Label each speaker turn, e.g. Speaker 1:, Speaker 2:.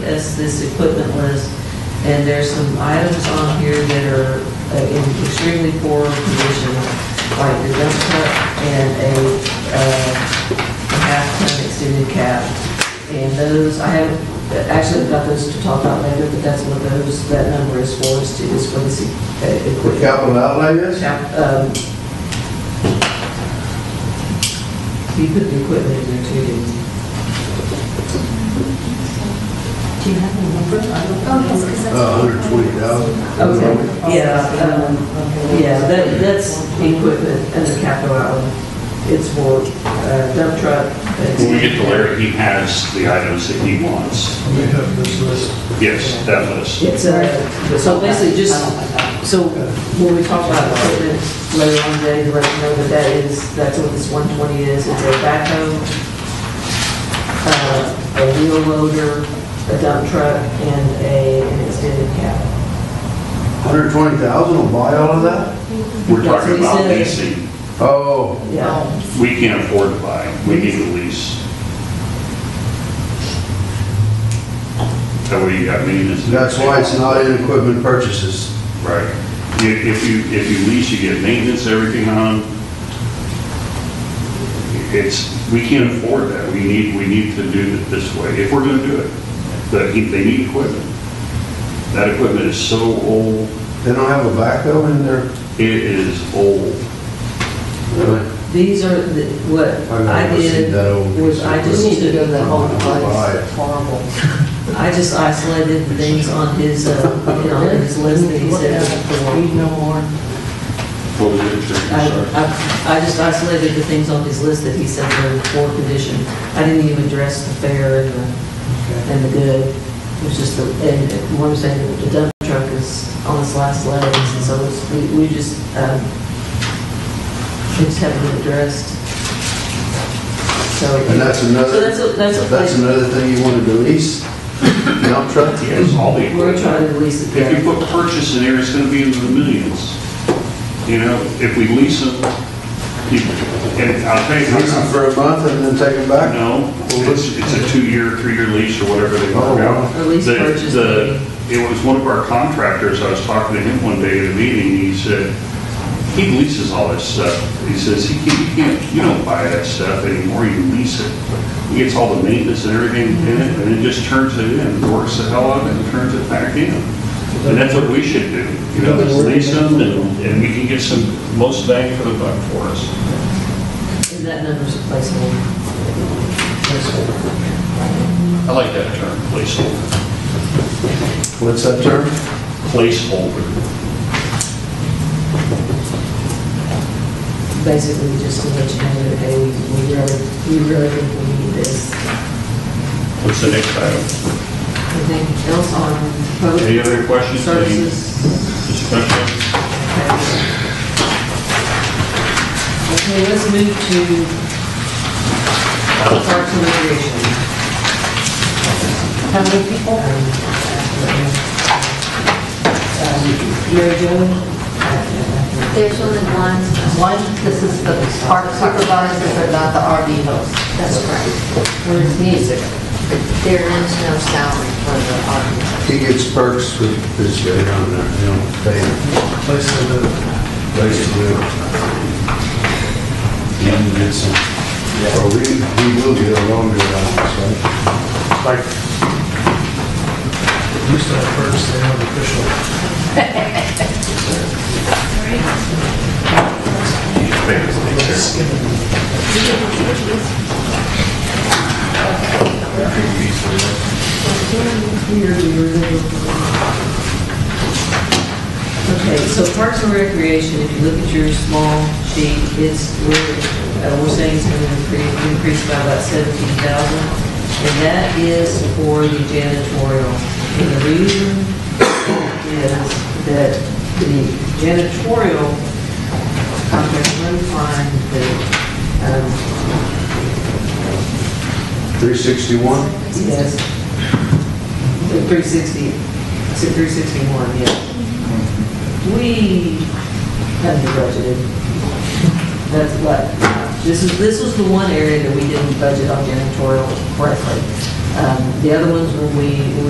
Speaker 1: that's this equipment list. And there's some items on here that are uh, in extremely poor condition, like the dump truck and a uh, a half-ton extended cab. And those, I haven't, actually I've got those to talk about later, but that's what those, that number is for, is to- is for this uh,
Speaker 2: For
Speaker 1: equipment.
Speaker 2: capital outlay this?
Speaker 1: Um, You put the equipment in there too, didn't you? Do you have a number? I don't
Speaker 3: Oh, yes, because that's.
Speaker 2: Uh, hundred twenty thousand.
Speaker 1: Okay, yeah, um, yeah, that, that's equipment under capital outlay. It's for uh, dump truck.
Speaker 4: When we get to Larry, he has the items that he wants.
Speaker 5: We have this list.
Speaker 4: Yes, that list.
Speaker 1: It's, uh, so basically just, so when we talk about equipment later on today, to let you know that that is, that's what this 120 is. It's a backhoe, uh, a wheel loader, a dump truck, and a, an extended cab.
Speaker 2: Hundred twenty thousand will buy all of that?
Speaker 4: We're
Speaker 1: That's what
Speaker 4: talking
Speaker 1: he
Speaker 4: about
Speaker 1: said.
Speaker 4: leasing.
Speaker 2: Oh,
Speaker 1: Yeah,
Speaker 4: We can't afford to buy, we need to lease. That way you got maintenance.
Speaker 2: that's why it's not in equipment purchases.
Speaker 4: Right. If if you, if you lease, you get maintenance, everything on. It's, we can't afford that. We need, we need to do it this way, if we're going to do it. But he- they need equipment. That equipment is so old,
Speaker 2: They don't have a backhoe in there?
Speaker 4: it is old.
Speaker 2: Really?
Speaker 1: these are, the- what
Speaker 2: I've never
Speaker 1: I
Speaker 2: seen
Speaker 1: did
Speaker 2: that old
Speaker 1: was I just
Speaker 2: piece of
Speaker 1: need to go to that whole
Speaker 2: Right.
Speaker 1: place. Horrible. I just isolated the things on his, uh, you know, his list that he said. Read no more.
Speaker 4: What was it, Trish?
Speaker 1: I,
Speaker 4: I'm sorry.
Speaker 1: I- I just isolated the things on his list that he said were in poor condition. I didn't even address the fair and the, and the good. It was just the, and what I'm saying, the dump truck is on its last legs, and so it's, we, we just, um, we just haven't been addressed. So.
Speaker 2: And that's
Speaker 1: So
Speaker 2: another,
Speaker 1: that's a, that's a.
Speaker 2: that's another thing you wanted to lease? Dump truck?
Speaker 4: Yes, all the
Speaker 1: We're trying
Speaker 4: equipment.
Speaker 1: to release it.
Speaker 4: If you put purchase in there, it's going to be into the millions. You know, if we lease them, you- and I'll tell you.
Speaker 2: Lease them for a month and then take them back?
Speaker 4: No, it's, it's a two-year, three-year lease or whatever they work out.
Speaker 1: Or lease
Speaker 4: The-
Speaker 1: purchase,
Speaker 4: the- It was one of our contractors, I was talking to him one day at a meeting, he said, he leases all this stuff. He says, he can't, you can't, you don't buy that stuff anymore, you lease it. He gets all the maintenance and everything in it, and then just turns it in, works the hell out of it, and turns it back in. And that's what we should do, you know, is lease them, and, and we can get some, most bang for the buck for us.
Speaker 1: And that number's a placeholder.
Speaker 4: I like that term, placeholder.
Speaker 2: What's that term?
Speaker 4: Placeholder.
Speaker 1: Basically, just to let you know that, hey, we we really, we really think we need this.
Speaker 4: What's the next item?
Speaker 1: Anything else on public
Speaker 4: Any other questions? Any
Speaker 1: services?
Speaker 4: Discussion?
Speaker 1: Okay, let's move to parks and recreation. How many people? Um, Mary Jo?
Speaker 3: There's only one.
Speaker 6: One, this is the park supervisors, but not the RV host.
Speaker 3: That's correct.
Speaker 6: Where's music?
Speaker 3: There is no salary for the audience.
Speaker 2: He gets perks with this guy down there, you know, paying,
Speaker 5: Place to live.
Speaker 2: basically. And get some, or we, we will get a longer allowance, right?
Speaker 5: Like, used to have first, they have official.
Speaker 1: Okay, so Parks and Recreation, if you look at your small sheet, it's, we're, uh, we're saying it's going to increase, increase by about seventeen thousand. And that is for the janitorial. And the reason is that the janitorial, I'm going to find the, um,
Speaker 2: 361?
Speaker 1: Yes. The 360, it's at 361, yeah. We haven't budgeted. That's what, this is, this was the one area that we didn't budget on janitorial correctly. Um, The other ones were we, we